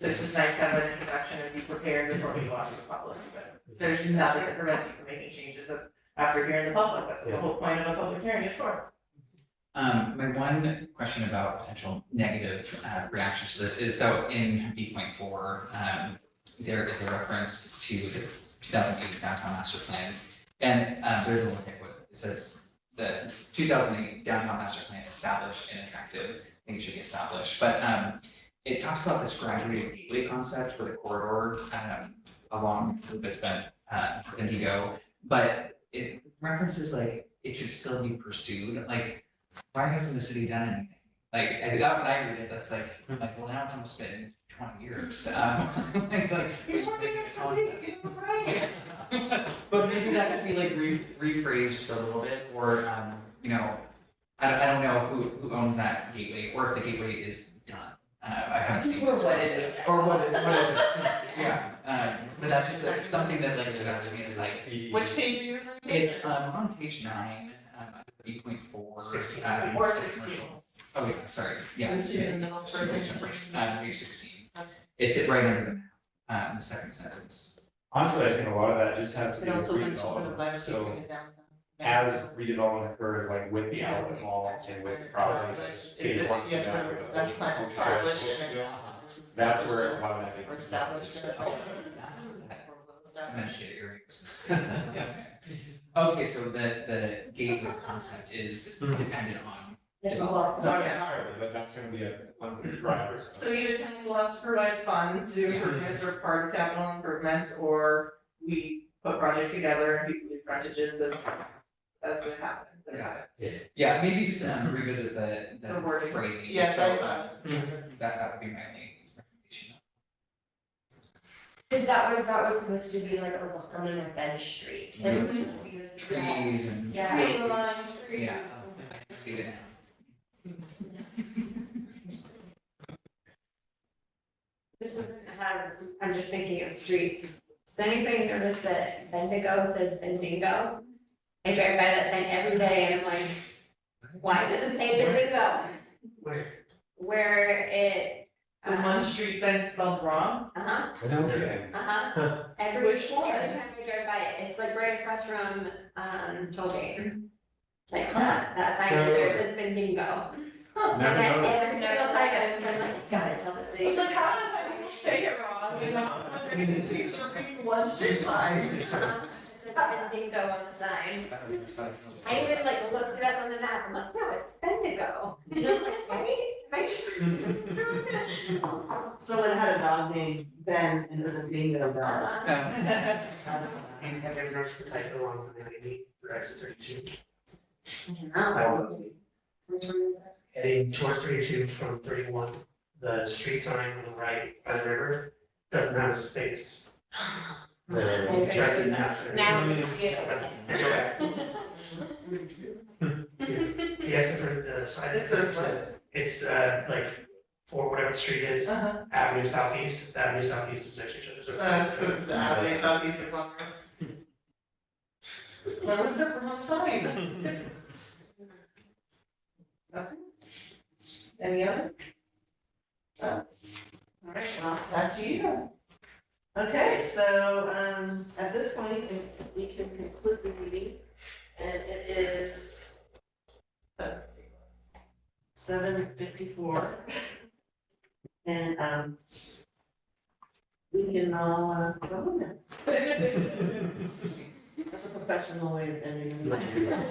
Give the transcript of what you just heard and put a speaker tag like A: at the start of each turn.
A: So it's just nice to have an introduction and be prepared before we go out to the public, but there's nothing that prevents you from making changes after hearing the public, that's what the whole point of a public hearing is for.
B: Um, my one question about potential negative uh, reactions to this is, so in B point four, um, there is a reference to the two thousand eight downtown master plan. And, uh, there's a little what it says, the two thousand eight downtown master plan established and attractive, I think it should be established, but, um, it talks about this graduated gateway concept for the corridor, um, along that's been, uh, Indigo. But it references like, it should still be pursued, like, why hasn't the city done anything? Like, and that, when I read it, that's like, like, well, now it's almost been twenty years, um, it's like. how is that? But maybe that could be like re- rephrased just a little bit, or, um, you know, I, I don't know who, who owns that gateway, or if the gateway is done. Uh, I haven't seen
A: Or
B: this.
A: what is it?
B: Or what, it- what is it, yeah, um, but that's just like something that like stood out to me is like,
A: Which page are you referring to?
B: it's, um, on page nine, um, eight point four.
C: Sixteen.
A: Or sixteen.
B: Oh, yeah, sorry, yeah.
A: Let's do it in the middle
B: it's
A: for
B: page
A: the-
B: six, uh, page sixteen.
A: Okay.
B: It's it right under the, uh, the second sentence.
C: Honestly, I think a lot of that just has to
A: It
C: do with
A: also mentions the
C: redevelopment,
A: last year
C: so
A: in the downtown.
C: as redevelopment occurs, like with the outlet mall and with the properties.
A: uh, Is it, you have to, that's plan established and then.
C: That's where a lot of that
A: Or
C: is.
A: established and.
B: Oh, that's what that cemented area is. Yeah. Okay, so the, the gateway concept is dependent on,
C: Not entirely, but that's gonna be a, one of the drivers.
A: So either council has to provide funds to do improvements or part of capital improvements, or we put projects together and people do frontages of, that's what happens.
B: Yeah. yeah, maybe just um, revisit the,
A: The
B: the
A: wording.
B: phrasing, just
A: Yes,
B: so,
A: that's.
B: uh, that, that would be my main recommendation.
D: Cause that was, that was supposed to be like a welcoming of Bench Street, so it was supposed to be this.
B: Trees and.
D: Yeah.
A: Tree
B: fields.
A: line, tree.
B: Yeah, I can see it now.
D: This isn't, how- I'm just thinking of streets. Does anybody notice that Bendigo says Bendigo? I drive by that sign every day and I'm like, why does it say Bendigo?
A: Where?
D: Where it. um,
A: The one street sign is spelled wrong,
D: Uh huh,
C: Okay.
D: uh huh. Every, every
A: Which one?
D: time I drive by it, it's like right across from, um, Tollgate. It's like, huh, that sign over there says Bendigo. Huh,
C: Never
D: and I-
C: noticed.
D: Every single time I'm like, God, I tell this lady.
A: it's like, how does that people say it wrong, you know, they're confused, they're reading one street sign.
D: Uh-huh. It says Bendigo on the sign.
B: That would be expensive.
D: I even like looked it up on the map, I'm like, no, it's Bendigo. And I'm like, wait, I just.
E: Someone had a dog named Ben and it was a dingo dog.
D: Uh,
B: Um,
E: And have you noticed the type of one for the ninety, for exit thirty-two?
D: I don't know.
E: That
C: Oh.
E: was-
D: Which one is that?
E: Heading towards thirty-two from thirty-one, the street sign on the right by the river doesn't have a space.
C: There.
D: Okay,
E: Drives me
D: so
E: nuts.
D: Now we can see it.
E: Okay.
D: okay.
E: Yes, I've heard the sign.
A: It says what?
E: It's uh like for whatever the street is,
A: Uh-huh.
E: Avenue Southeast, the Avenue Southeast is next to each other, so it's.
A: Uh, so it's, uh, they saw these as well. Where was the wrong sign? Okay. Any other? Oh. All right, well, back to you.
F: Okay, so, um, at this point, we can conclude the meeting, and it is seven fifty-four. And, um, we can all, uh, go home now. That's a professional way of ending the meeting.